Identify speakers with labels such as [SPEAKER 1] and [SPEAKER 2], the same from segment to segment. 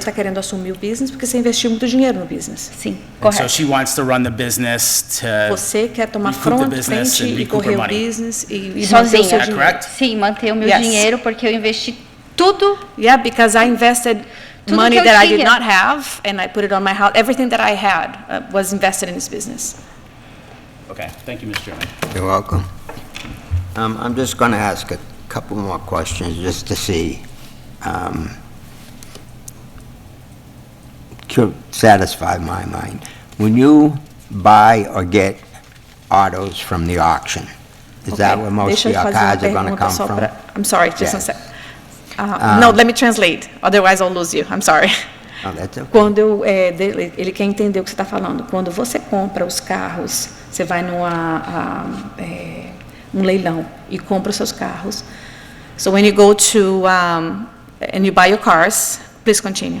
[SPEAKER 1] está tá querendo assumir o business porque você investiu muito dinheiro no business.
[SPEAKER 2] Sim,
[SPEAKER 1] Então,
[SPEAKER 3] And so
[SPEAKER 2] correto.
[SPEAKER 3] she wants to run the business
[SPEAKER 4] É.
[SPEAKER 3] to.
[SPEAKER 1] Você quer tomar
[SPEAKER 3] Recoup the
[SPEAKER 1] front,
[SPEAKER 3] business
[SPEAKER 1] frente
[SPEAKER 3] and
[SPEAKER 1] e
[SPEAKER 3] recoup
[SPEAKER 1] correr
[SPEAKER 3] her
[SPEAKER 1] o
[SPEAKER 3] money.
[SPEAKER 1] business e, e manter o seu
[SPEAKER 2] Sozinha.
[SPEAKER 3] Yeah,
[SPEAKER 1] dinheiro.
[SPEAKER 3] correct?
[SPEAKER 2] Sim, manter o meu
[SPEAKER 1] Yes.
[SPEAKER 2] dinheiro porque eu investi tudo.
[SPEAKER 1] Yeah, because I invested
[SPEAKER 2] Tudo
[SPEAKER 1] money
[SPEAKER 2] que eu
[SPEAKER 1] that I did
[SPEAKER 2] tinha.
[SPEAKER 1] not have and I put it on my house. Everything that I had uh, was invested in this business.
[SPEAKER 3] Okay, thank you, Mr. Chairman.
[SPEAKER 4] You're welcome. Um, I'm just going to ask a couple more questions, just to see um, to satisfy my mind. When you buy or get autos from the auction, is that
[SPEAKER 1] Okay,
[SPEAKER 4] where
[SPEAKER 1] deixa
[SPEAKER 4] most of
[SPEAKER 1] eu
[SPEAKER 4] your
[SPEAKER 1] fazer uma
[SPEAKER 4] cars are going to
[SPEAKER 1] pergunta
[SPEAKER 4] come
[SPEAKER 1] só
[SPEAKER 4] from?
[SPEAKER 1] pra- I'm sorry, just a
[SPEAKER 4] Yes. Um,
[SPEAKER 1] sec. Uh, no, let me translate, otherwise I'll lose you. I'm sorry.
[SPEAKER 4] No, Oh, that's okay.
[SPEAKER 1] Quando eu, é, dele- ele quer entender o que você está falando. Quando você compra os carros, você vai numa um, é, um leilão e compra os seus carros. So when you go to um, and you buy your cars, please continue.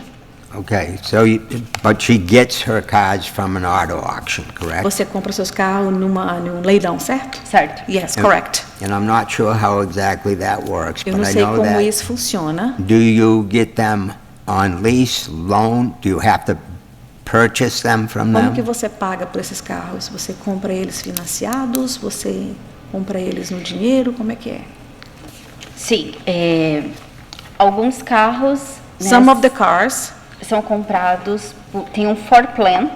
[SPEAKER 4] Okay, so, you- but she gets her cars from an auto auction, correct?
[SPEAKER 1] Você compra os seus carros numa num leilão, certo?
[SPEAKER 2] Certo.
[SPEAKER 1] Yes,
[SPEAKER 4] É.
[SPEAKER 1] correct.
[SPEAKER 4] And I'm not sure how exactly that works,
[SPEAKER 1] Eu
[SPEAKER 4] but
[SPEAKER 1] não
[SPEAKER 4] I
[SPEAKER 1] sei
[SPEAKER 4] know
[SPEAKER 1] como
[SPEAKER 4] that...
[SPEAKER 1] isso funciona.
[SPEAKER 4] Do you get them on lease, loan? Do you have to purchase them from
[SPEAKER 1] Como que
[SPEAKER 4] them?
[SPEAKER 1] você paga por esses carros? Você compra eles financiados? Você compra eles no dinheiro? Como é que é?
[SPEAKER 2] Sim. é, alguns carros né,
[SPEAKER 1] Some of the cars
[SPEAKER 2] são comprados, por- tem um for plan,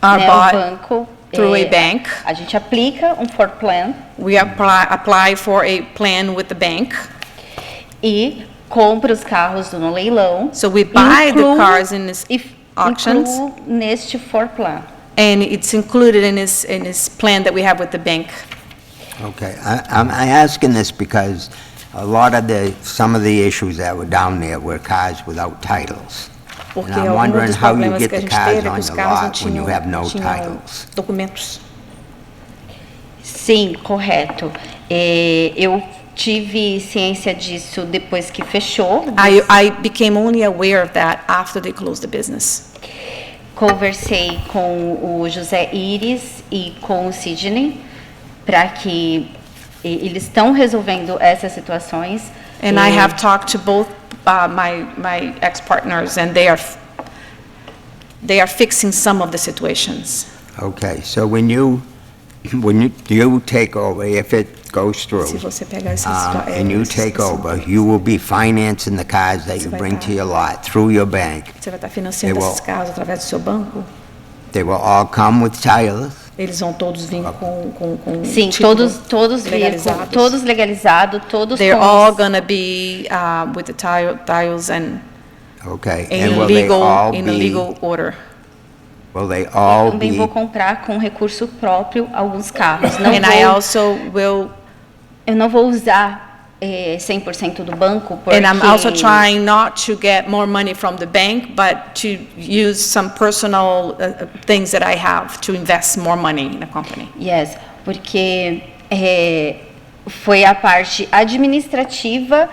[SPEAKER 1] are
[SPEAKER 2] né, o
[SPEAKER 1] Ah, bought
[SPEAKER 2] banco.
[SPEAKER 1] through
[SPEAKER 2] é,
[SPEAKER 1] a bank.
[SPEAKER 2] A gente aplica um for plan
[SPEAKER 1] We apply, apply for a plan with the bank.
[SPEAKER 2] e compra os carros no leilão.
[SPEAKER 1] So we buy the
[SPEAKER 2] incluo-
[SPEAKER 1] cars in this
[SPEAKER 2] e f-
[SPEAKER 1] auctions.
[SPEAKER 2] incluo neste for plan.
[SPEAKER 1] and it's included in this, in this plan that we have with the bank.
[SPEAKER 4] Okay, I- I'm I'm asking this because a lot of the, some of the issues that were down there were cars without titles.
[SPEAKER 1] Porque
[SPEAKER 4] And I'm
[SPEAKER 1] algum
[SPEAKER 4] wondering
[SPEAKER 1] dos
[SPEAKER 4] how you
[SPEAKER 1] problemas
[SPEAKER 4] get
[SPEAKER 1] que a
[SPEAKER 4] the
[SPEAKER 1] gente
[SPEAKER 4] cars
[SPEAKER 1] teve é
[SPEAKER 4] on
[SPEAKER 1] que os
[SPEAKER 4] the
[SPEAKER 1] carros não
[SPEAKER 4] lot when you
[SPEAKER 1] tinham,
[SPEAKER 4] have no
[SPEAKER 1] não tinham
[SPEAKER 4] titles.
[SPEAKER 1] documentos.
[SPEAKER 2] Sim, correto. É, eu tive ciência disso depois que fechou.
[SPEAKER 1] I, I became only aware of that after they closed the business.
[SPEAKER 2] Conversei com o José Iris e com o Sidney para que e- eles estão resolvendo essas situações.
[SPEAKER 1] And
[SPEAKER 2] É,
[SPEAKER 1] I have talked to both uh, my, my ex-partners and they are, f- they are fixing some of the situations.
[SPEAKER 4] Okay, so when you, when you, do you take over, if it goes through,
[SPEAKER 1] Se você pegar esses...
[SPEAKER 4] um, and you
[SPEAKER 1] esses-
[SPEAKER 4] take
[SPEAKER 1] esses-
[SPEAKER 4] over, you will be financing the cars that you
[SPEAKER 1] Você vai
[SPEAKER 4] bring
[SPEAKER 1] tá-
[SPEAKER 4] to your lot through your bank.
[SPEAKER 1] Você vai estar financiando
[SPEAKER 4] Eu-
[SPEAKER 1] esses carros através do seu banco?
[SPEAKER 4] They will all come with titles?
[SPEAKER 1] Eles vão todos vir com, com, com um
[SPEAKER 2] Sim,
[SPEAKER 1] título
[SPEAKER 2] todos, todos legalizados,
[SPEAKER 1] legalizados.
[SPEAKER 2] todos legalizados, todos
[SPEAKER 1] They're
[SPEAKER 2] com-
[SPEAKER 1] all gonna be uh, with the tile- tiles and
[SPEAKER 4] Okay, and
[SPEAKER 1] in
[SPEAKER 4] will they all
[SPEAKER 1] legal, in a
[SPEAKER 4] be,
[SPEAKER 1] legal order.
[SPEAKER 4] will they all
[SPEAKER 2] também
[SPEAKER 4] be,
[SPEAKER 2] vou comprar com recurso próprio alguns carros. Não
[SPEAKER 1] And
[SPEAKER 2] vou-
[SPEAKER 1] I also will,
[SPEAKER 2] eu não vou usar eh, 100% do banco porque
[SPEAKER 1] and I'm also trying not to get more money from the bank, but to use some personal uh, uh, things that I have to invest more money in the company.
[SPEAKER 2] Yes, porque eh, foi a parte administrativa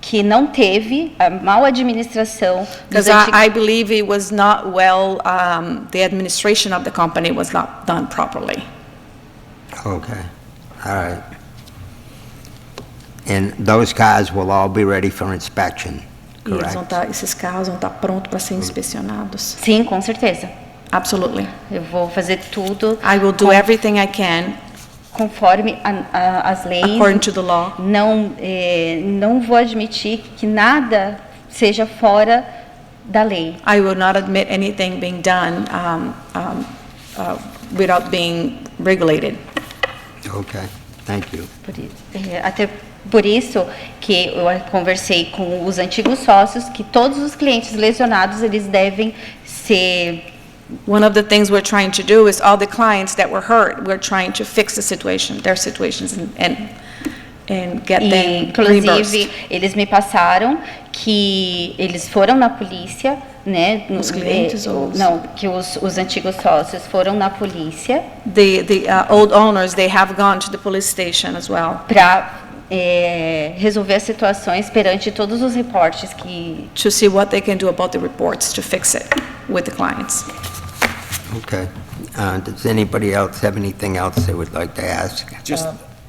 [SPEAKER 2] que não teve a mal administração
[SPEAKER 1] Because
[SPEAKER 2] dos
[SPEAKER 1] I,
[SPEAKER 2] anti-
[SPEAKER 1] I believe it was not well, um, the administration of the company was not done properly.
[SPEAKER 4] okay, all right. And those cars will all be ready for inspection,
[SPEAKER 1] E eles vão
[SPEAKER 4] correct?
[SPEAKER 1] tá, esses carros vão estar prontos para serem inspecionados?
[SPEAKER 2] Sim, com certeza.
[SPEAKER 1] Absolutely.
[SPEAKER 2] Eu vou fazer tudo
[SPEAKER 1] I will do everything I can
[SPEAKER 2] conforme a- a- as leis.
[SPEAKER 1] according to the law.
[SPEAKER 2] Não, eh, não vou admitir que nada seja fora da lei.
[SPEAKER 1] I will not admit anything being done um, um, uh, without being regulated.
[SPEAKER 4] Okay, thank you.
[SPEAKER 2] Por i- eh, até por isso que eu a- conversei com os antigos sócios que todos os clientes lesionados eles devem ser
[SPEAKER 1] One of the things we're trying to do is all the clients that were hurt, we're trying to fix the situation, their situations and- and, and get
[SPEAKER 2] e,
[SPEAKER 1] them
[SPEAKER 2] inclusive
[SPEAKER 1] reimbursed.
[SPEAKER 2] eles me passaram que eles foram na polícia né no-
[SPEAKER 1] Os clientes
[SPEAKER 2] eh,
[SPEAKER 1] ou os-
[SPEAKER 2] não que os, os antigos sócios foram na polícia
[SPEAKER 1] The, the uh, old owners, they have gone to the police station as well
[SPEAKER 2] para eh, resolver as situações perante todos os reportes que
[SPEAKER 1] to see what they can do about the reports to fix it with the clients.
[SPEAKER 4] Okay, uh, does anybody else have anything else they would like to ask?
[SPEAKER 3] Just,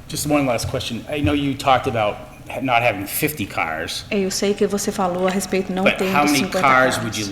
[SPEAKER 3] just one last question. I know you talked about
[SPEAKER 1] not having 50 cars,
[SPEAKER 3] Eu sei que você falou a respeito não
[SPEAKER 1] but
[SPEAKER 3] tendo
[SPEAKER 1] how many
[SPEAKER 3] 50
[SPEAKER 1] cars would you